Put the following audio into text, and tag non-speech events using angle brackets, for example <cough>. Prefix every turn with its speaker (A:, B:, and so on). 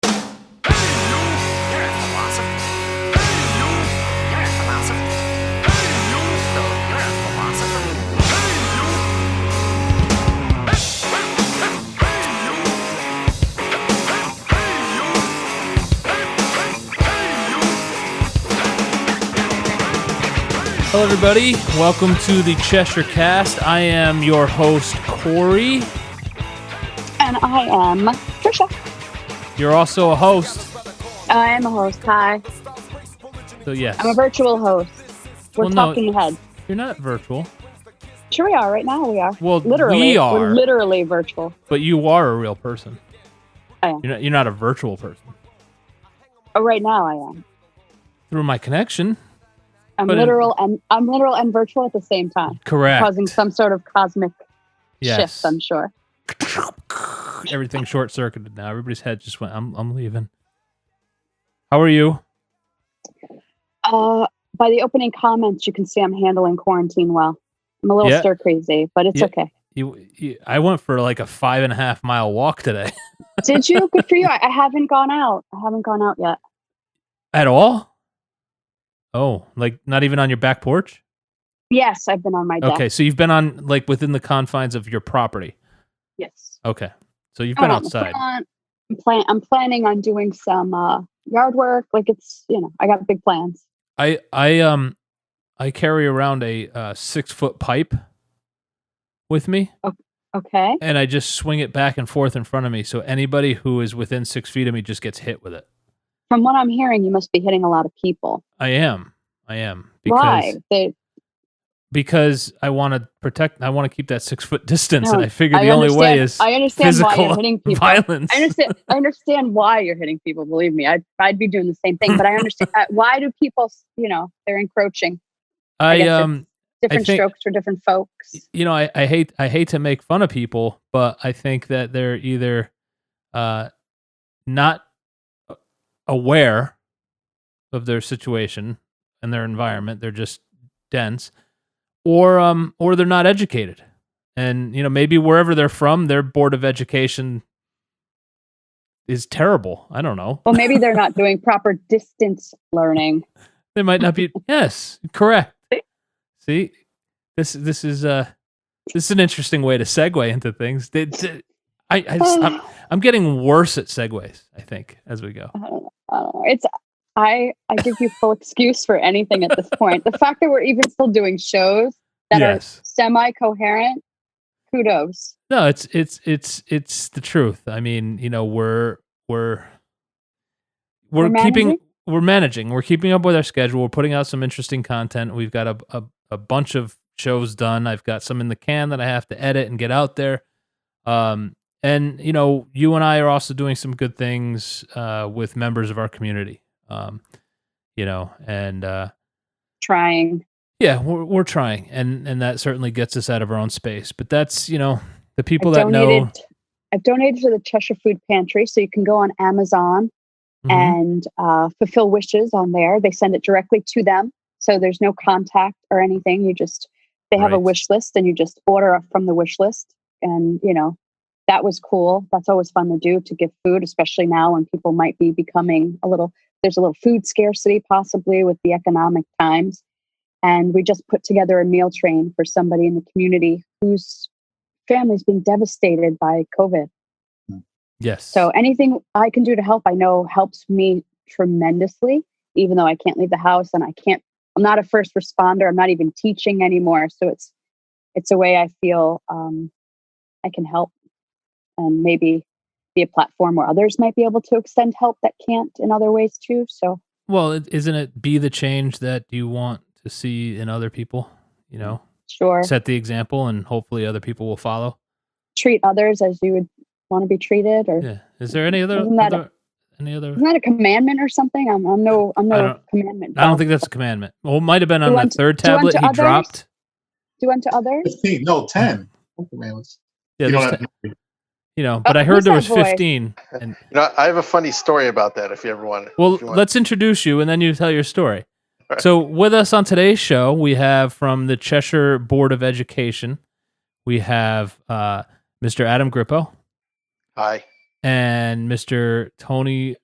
A: Hello, everybody. Welcome to the Cheshire Cast. I am your host, Corey.
B: And I am Trisha.
A: You're also a host.
B: I am a host. Hi.
A: So, yes,
B: I'm a virtual host. We're
A: Well, no.
B: talking ahead.
A: you're not virtual,
B: Sure, we are. Right now, we are.
A: Well,
B: literally,
A: we
B: We're
A: are.
B: literally virtual.
A: but you are a real person.
B: I am.
A: You're not, you're not a virtual person.
B: Oh, right now, I am.
A: Through my connection,
B: I'm
A: But in-
B: literal and I'm literal and virtual at the same time,
A: correct.
B: causing some sort of cosmic
A: yes.
B: shift. I'm sure.
A: Everything short circuited now. Everybody's head just went, I'm, I'm leaving. How are you?
B: Uh, by the opening comments, you can see I'm handling quarantine well. I'm a little
A: Yeah.
B: stir crazy, but it's
A: Yeah.
B: okay.
A: You, you, I went for like a five and a half mile walk today. <laughs>
B: Did you? Good for you. I, I haven't gone out. I haven't gone out yet.
A: At all? Oh, like not even on your back porch?
B: Yes, I've been on my deck.
A: Okay, so you've been on like within the confines of your property.
B: Yes.
A: Okay, so you've been
B: Um,
A: outside.
B: plan- I'm, plan- I'm planning on doing some uh, yard work. Like it's, you know, I got big plans.
A: I I um I carry around a uh, six foot pipe with me,
B: Okay.
A: and I just swing it back and forth in front of me. So anybody who is within six feet of me just gets hit with it.
B: From what I'm hearing, you must be hitting a lot of people.
A: I am, I am because
B: Why? They,
A: because I want to protect. I want to keep that six foot <laughs> distance, and
B: No,
A: I figure
B: I
A: the only way
B: understand-
A: is
B: I understand why
A: physical <laughs>
B: you're hitting people.
A: violence.
B: I understand. I understand why you're hitting people. Believe me, I'd, I'd be doing the same thing. But I understand
A: <laughs>
B: uh, why do people? You know, they're encroaching. I
A: I
B: guess it's-
A: um
B: Different
A: think-
B: strokes for different folks.
A: you know, I, I hate I hate to make fun of people, but I think that they're either uh, not aware of their situation and their environment. They're just dense, or um, or they're not educated, and you know, maybe wherever they're from, their board of education is terrible. I don't know.
B: Well, maybe they're not doing proper distance learning.
A: They might not be. yes, correct. See, this this is uh this is an interesting way to segue into things. Did, did- I, I just-
B: <sighs>
A: I'm, I'm getting worse at segues. I think as we go.
B: I don't know. I don't know. It's I I give you full excuse for anything at this point. The fact that we're even still doing shows that
A: yes.
B: are semi coherent, kudos.
A: No, it's it's it's it's the truth. I mean, you know, we're we're we're,
B: We're
A: keeping
B: managing?
A: we're managing. We're keeping up with our schedule. We're putting out some interesting content. We've got a a, a bunch of shows done. I've got some in the can that I have to edit and get out there. Um and you know, you and I are also doing some good things uh with members of our community. Um you know, and uh
B: Trying.
A: yeah, we're we're trying and and that certainly gets us out of our own space. But that's, you know, the people
B: I've
A: that know
B: donated I've donated to the Cheshire Food Pantry, so you can go on Amazon
A: Mhm.
B: and uh, fulfill wishes on there. They send it directly to them. So there's no contact or anything. You just they have a
A: Right.
B: wish list and you just order up from the wish list. And you know, that was cool. That's always fun to do to give food, especially now when people might be becoming a little there's a little food scarcity possibly with the economic times. And we just put together a meal train for somebody in the community whose family's been devastated by COVID.
A: Yes.
B: So anything I can do to help, I know helps me tremendously, even though I can't leave the house and I can't I'm not a first responder. I'm not even teaching anymore. So it's it's a way I feel um, I can help and maybe be a platform where others might be able to extend help that can't in other ways too. So
A: Well, it, isn't it be the change that you want to see in other people? You know,
B: sure.
A: set the example, and hopefully other people will follow.
B: Treat others as you would want to be treated or
A: Yeah. Is there any other,
B: Isn't that a-
A: other any other?
B: isn't that a commandment or something? I'm, I'm no I'm
A: I
B: no
A: don't-
B: commandment.
A: I don't
B: follower.
A: think that's a commandment. Well, it might have been
B: Do
A: on that
B: unto-
A: third
B: do unto
A: tablet he
B: others?
A: dropped.
B: do unto others.
C: 15, no, 10. Oh, man, let's-
A: Yeah,
C: you,
A: there's
C: don't
A: te- you,
C: have, you
A: know, but
B: Oh,
A: I heard
B: who's
A: there was
B: that boy?
A: fifteen. And
C: know, I have a funny story about that if you ever want.
A: well,
C: if you want.
A: let's introduce you, and then you tell your story.
C: All right.
A: So, with us on today's show, we have from the Cheshire Board of Education, we have uh, Mr. Adam Grippo.
C: Hi.
A: and Mr. Tony